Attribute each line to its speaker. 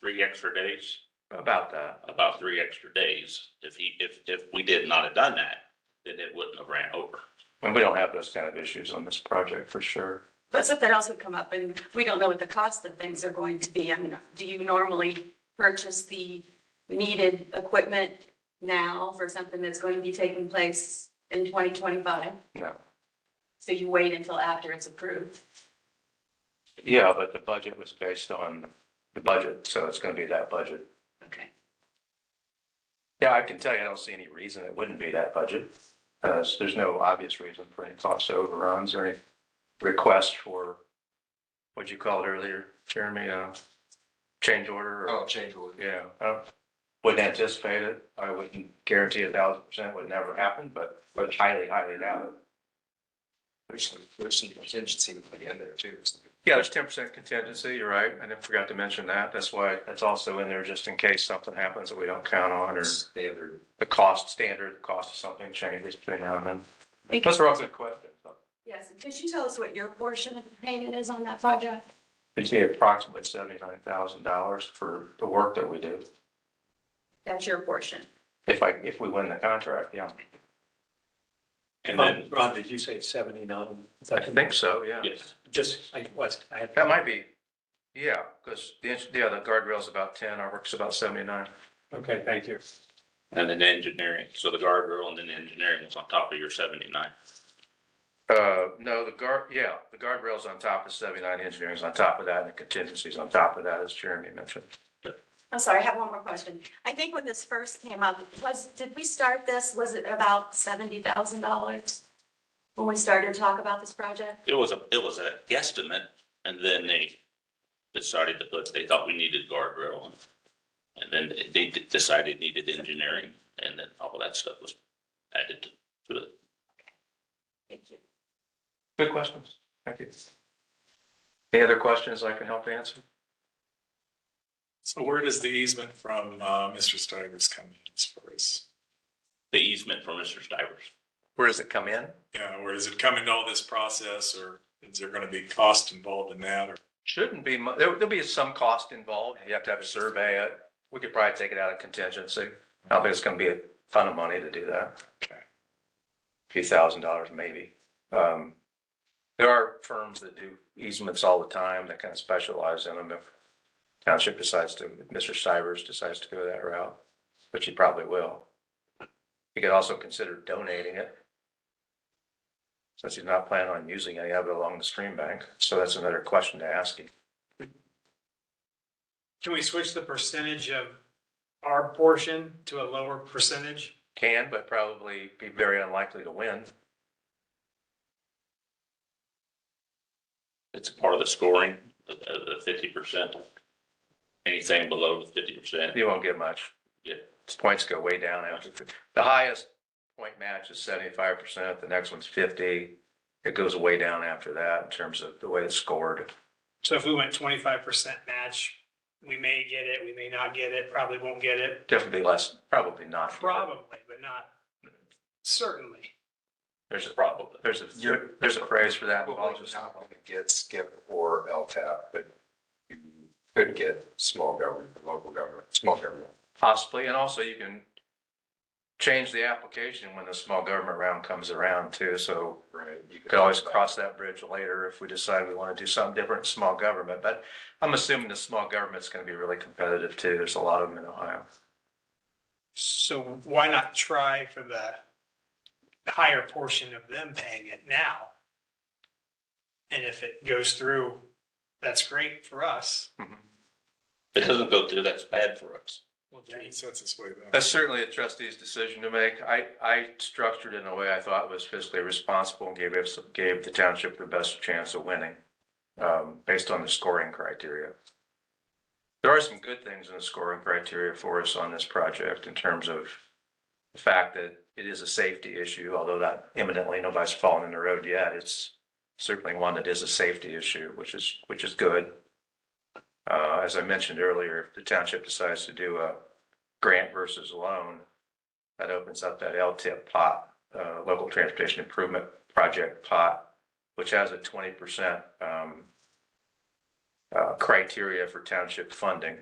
Speaker 1: three extra days,
Speaker 2: about that.
Speaker 1: about three extra days. If he, if, if we did not have done that, then it wouldn't have ran over.
Speaker 2: And we don't have those kind of issues on this project for sure.
Speaker 3: But something else would come up and we don't know what the cost of things are going to be. I mean, do you normally purchase the needed equipment now for something that's going to be taking place in twenty twenty-five?
Speaker 2: No.
Speaker 3: So you wait until after it's approved?
Speaker 2: Yeah, but the budget was based on the budget, so it's gonna be that budget.
Speaker 3: Okay.
Speaker 2: Yeah, I can tell you, I don't see any reason it wouldn't be that budget. Uh, so there's no obvious reason for any cost overruns or any request for, what'd you call it earlier, Jeremy, uh, change order or,
Speaker 4: Oh, change order.
Speaker 2: yeah. I don't- Wouldn't anticipate it. I wouldn't guarantee a thousand percent would never happen, but, but highly, highly doubt it.
Speaker 4: There's some, there's some contingency to put in there too.
Speaker 2: Yeah, there's ten percent contingency, you're right. I didn't forgot to mention that. That's why that's also in there just in case something happens that we don't count on or
Speaker 4: Standard.
Speaker 2: the cost standard, the cost of something changes between now and then. Those are all good questions.
Speaker 3: Yes, and could you tell us what your portion of the payment is on that project?
Speaker 2: It'd be approximately seventy-nine thousand dollars for the work that we do.
Speaker 3: That's your portion.
Speaker 2: If I, if we win the contract, yeah.
Speaker 1: And then,
Speaker 5: Ron, did you say seventy-nine? Is
Speaker 2: I
Speaker 5: that-
Speaker 2: think so, yeah.
Speaker 1: yes,
Speaker 5: Just, I was, I had.
Speaker 2: That might be, yeah, because the, ins- yeah, the guardrail's about ten, our work's about seventy-nine.
Speaker 5: Okay, thank you.
Speaker 1: and then engineering, so the guardrail and then engineering was on top of your seventy-nine.
Speaker 2: Uh, no, the guard, yeah, the guardrail's on top of seventy-nine, engineering's on top of that, and the contingency's on top of that, as Jeremy mentioned.
Speaker 3: I'm sorry, I have one more question. I think when this first came up, was, did we start this, was it about seventy thousand dollars? When we started to talk about this project?
Speaker 1: It was a, it was a guesstimate, and then they decided to put, they thought we needed guardrail. and- And then they d- decided needed engineering, and then all of that stuff was added to it.
Speaker 3: Thank you.
Speaker 2: Good questions. Thank you. Any other questions I can help answer?
Speaker 6: So where does the easement from uh, Mr. Steiger's come in as far as,
Speaker 1: The easement for Mr. Stivers.
Speaker 2: Where does it come in?
Speaker 6: yeah, or is it come into all this process or is there gonna be cost involved in that or?
Speaker 2: Shouldn't be, mu- there, there'll be some cost involved. You have to have a survey. Uh, We could probably take it out of contingency. I don't think it's gonna be a ton of money to do that.
Speaker 6: Okay.
Speaker 2: Few thousand dollars maybe. Um, there are firms that do easements all the time that kind of specialize in them. If township decides to, if Mr. Stivers decides to go that route, which he probably will. He could also consider donating it. Since he's not planning on using any of it along the stream bank. So that's another question to ask him.
Speaker 5: Can we switch the percentage of our portion to a lower percentage?
Speaker 2: Can, but probably be very unlikely to win.
Speaker 1: It's a part of the scoring, the, the fifty percent. Anything below the fifty percent,
Speaker 2: You won't get much.
Speaker 1: Yeah.
Speaker 2: Points go way down after, the highest point match is seventy-five percent, the next one's fifty. It goes way down after that in terms of the way it's scored.
Speaker 7: So if we went twenty-five percent match, we may get it, we may not get it, probably won't get it,
Speaker 2: Definitely less, probably not.
Speaker 7: probably, but not certainly.
Speaker 2: There's a,
Speaker 1: probably.
Speaker 2: there's a, there's a phrase for that.
Speaker 4: Well,
Speaker 2: Apologies.
Speaker 4: not gonna Get skip or LTAP, but you could get small government, local government, small government.
Speaker 2: Possibly, and also you can change the application when the small government round comes around too, so
Speaker 4: Right.
Speaker 2: You could always cross that bridge later if we decide we want to do something different in small government, but I'm assuming the small government's going to be really competitive too. There's a lot of them in Ohio.
Speaker 7: So why not try for the higher portion of them paying it now? And if it goes through, that's great for us.
Speaker 1: If it doesn't go through, that's bad for us.
Speaker 7: Well,
Speaker 6: He sets his way back.
Speaker 2: That's certainly a trustee's decision to make. I, I structured it in a way I thought was fiscally responsible and gave us, gave the township the best chance of winning, um, based on the scoring criteria. There are some good things in the scoring criteria for us on this project in terms of the fact that it is a safety issue, although not imminently, nobody's fallen in the road yet. It's certainly one that is a safety issue, which is, which is good. Uh, as I mentioned earlier, if the township decides to do a grant versus loan, that opens up that LTIP pot, uh, local transportation improvement project pot, which has a twenty percent, um, uh, criteria for township funding.